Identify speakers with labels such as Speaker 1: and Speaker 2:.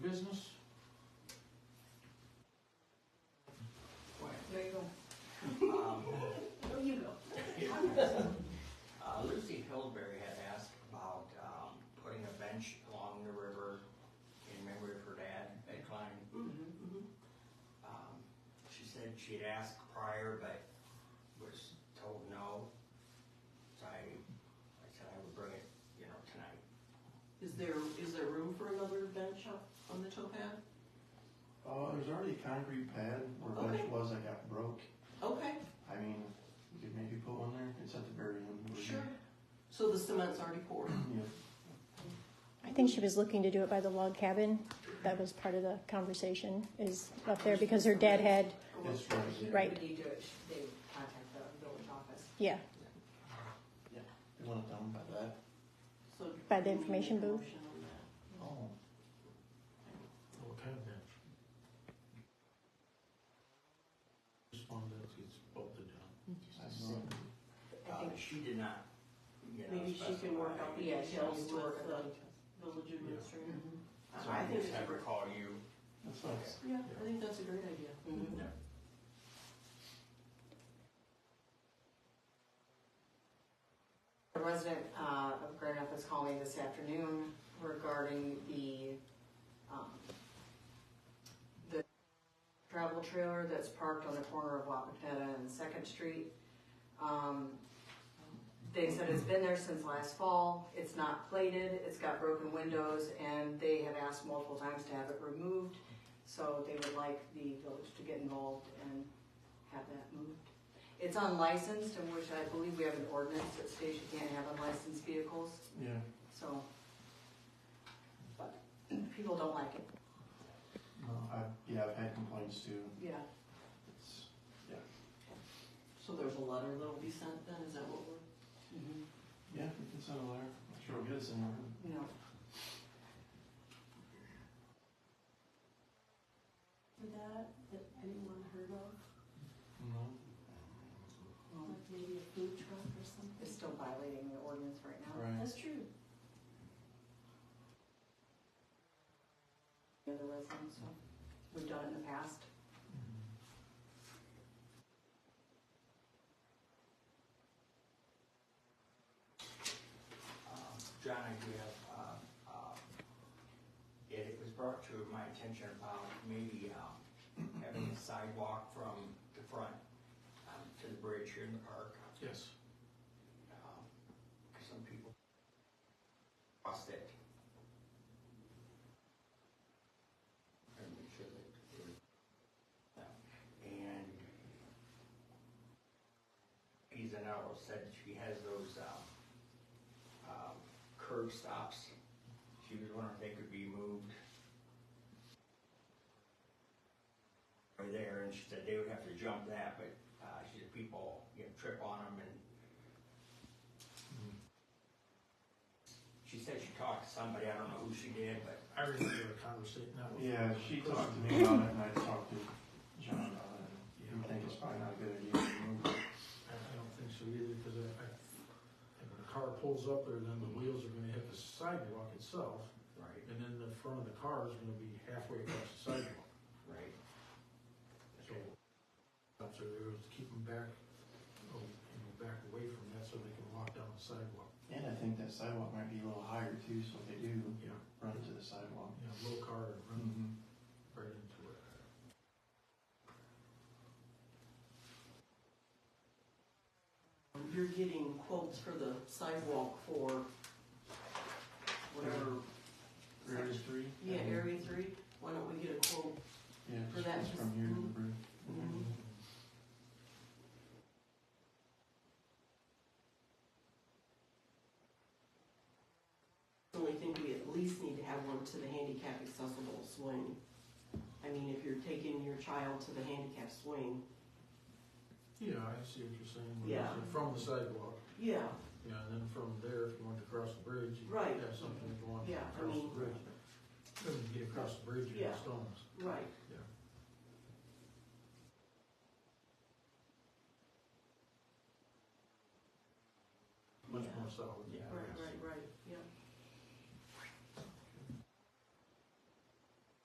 Speaker 1: Um, uh, um,
Speaker 2: Mm-hmm,
Speaker 1: Um, she had asked prior, but was told no. So I, I said I would bring it, you know, tonight.
Speaker 2: Is there, is there room for another bench up on the tow pad?
Speaker 3: Uh, there's already a concrete pad where a bench
Speaker 2: Okay.
Speaker 3: was that got broke.
Speaker 2: Okay,
Speaker 3: I mean, you could maybe put one there. It's at the very end.
Speaker 4: Mhm.
Speaker 3: where you-
Speaker 2: sure. So the cement's already poured?
Speaker 3: Yeah.
Speaker 5: I think she was looking to do it by the log cabin. That was part of the conversation is up there because her dad had,
Speaker 3: It's right.
Speaker 5: Right.
Speaker 4: When you do it, they contact the village office.
Speaker 5: yeah,
Speaker 3: You want it down by that?
Speaker 2: So
Speaker 5: By the information
Speaker 2: do we need a
Speaker 5: booth?
Speaker 2: motion on that?
Speaker 3: Oh.
Speaker 6: What kind of bench? Just one that gets bolted down.
Speaker 3: I don't know.
Speaker 4: I
Speaker 1: Uh,
Speaker 4: think,
Speaker 1: she did not, you know.
Speaker 2: Maybe she can work out the
Speaker 4: yeah, she
Speaker 2: details
Speaker 4: needs to
Speaker 2: with
Speaker 4: work on
Speaker 2: the village administrator.
Speaker 4: Mm-hmm.
Speaker 1: So
Speaker 2: I I
Speaker 1: I
Speaker 2: think
Speaker 1: just
Speaker 2: it's a
Speaker 1: have her
Speaker 2: great,
Speaker 1: call you.
Speaker 3: That's nice.
Speaker 2: yeah, I think that's a great idea.
Speaker 4: Mm-hmm.
Speaker 1: Yeah.
Speaker 4: A resident uh, of Grand Rapids called me this afternoon regarding the, um, the travel trailer that's parked on the corner of Wapatetta and Second Street. Um, They said it's been there since last fall, it's not plated, it's got broken windows, and they have asked multiple times to have it removed. So they would like the village to get involved and have that moved. It's unlicensed, and which I believe we have an ordinance that states you can't have unlicensed vehicles,
Speaker 3: Yeah.
Speaker 4: so. But people don't like it.
Speaker 3: No, I've, yeah, I've had complaints too.
Speaker 4: Yeah.
Speaker 3: It's,
Speaker 2: So there's a letter that'll be sent then, is that what we're? Mm-hmm.
Speaker 3: yeah, we can send a letter. I'm sure we'll get it somewhere.
Speaker 4: You know.
Speaker 2: That, that anyone heard of,
Speaker 3: No.
Speaker 4: well,
Speaker 2: maybe a food truck or something?
Speaker 4: It's still violating the ordinance right now.
Speaker 3: Right.
Speaker 2: That's true.
Speaker 4: The other residents, so we've done it in the past.
Speaker 6: Mm-hmm.
Speaker 1: Um, John, I do have, uh, uh, it it was brought to my attention about maybe, um, having a sidewalk from the front, um, to the bridge here in the park.
Speaker 6: Yes.
Speaker 1: um, Cause some people lost it. And make sure that, they- and Izanaro said she has those, um, um, curb stops. She was wondering if they could be moved. Right there, and she said they would have to jump that, but, uh, she said people, you know, trip on them and she said she talked to somebody, I don't know who she did, but
Speaker 6: I remember a conversation that was.
Speaker 3: Yeah, she talked to me about it and I talked to John about it.
Speaker 6: Yeah.
Speaker 3: You think it's probably not a good idea to remove it.
Speaker 6: I, I don't think so either, because I, I, and when the car pulls up there, then the wheels are gonna hit the sidewalk itself,
Speaker 1: right,
Speaker 6: and then the front of the car is gonna be halfway across the sidewalk.
Speaker 1: right.
Speaker 6: So, that's what it was, keep them back, oh, you know, back away from that so they can walk down the sidewalk.
Speaker 3: And I think that sidewalk might be a little higher too, so if they do
Speaker 6: Yeah,
Speaker 3: run into the sidewalk.
Speaker 6: you know, low car and run
Speaker 3: Mm-hmm.
Speaker 6: right into it.
Speaker 2: You're getting quotes for the sidewalk for whatever,
Speaker 3: Area three?
Speaker 2: yeah, area three, why don't we get a quote
Speaker 3: Yeah,
Speaker 2: for
Speaker 3: it's
Speaker 2: that
Speaker 3: it's
Speaker 2: just-
Speaker 3: from here to the Mm-hmm.
Speaker 2: mm.
Speaker 3: bridge.
Speaker 2: Mhm. Only think we at least need to have one to the handicap accessible swing. I mean, if you're taking your child to the handicap swing,
Speaker 6: Yeah, I see what you're saying. when you
Speaker 2: Yeah.
Speaker 6: say From the sidewalk,
Speaker 2: yeah,
Speaker 6: yeah, and then from there, if you want to cross the bridge, you
Speaker 2: Right.
Speaker 6: have something to go on
Speaker 2: Yeah, I
Speaker 6: across the
Speaker 2: mean-
Speaker 6: bridge. Then you get across the bridge, you
Speaker 2: Yeah.
Speaker 6: have stones.
Speaker 2: right.
Speaker 6: Much
Speaker 2: Yeah.
Speaker 6: more solid.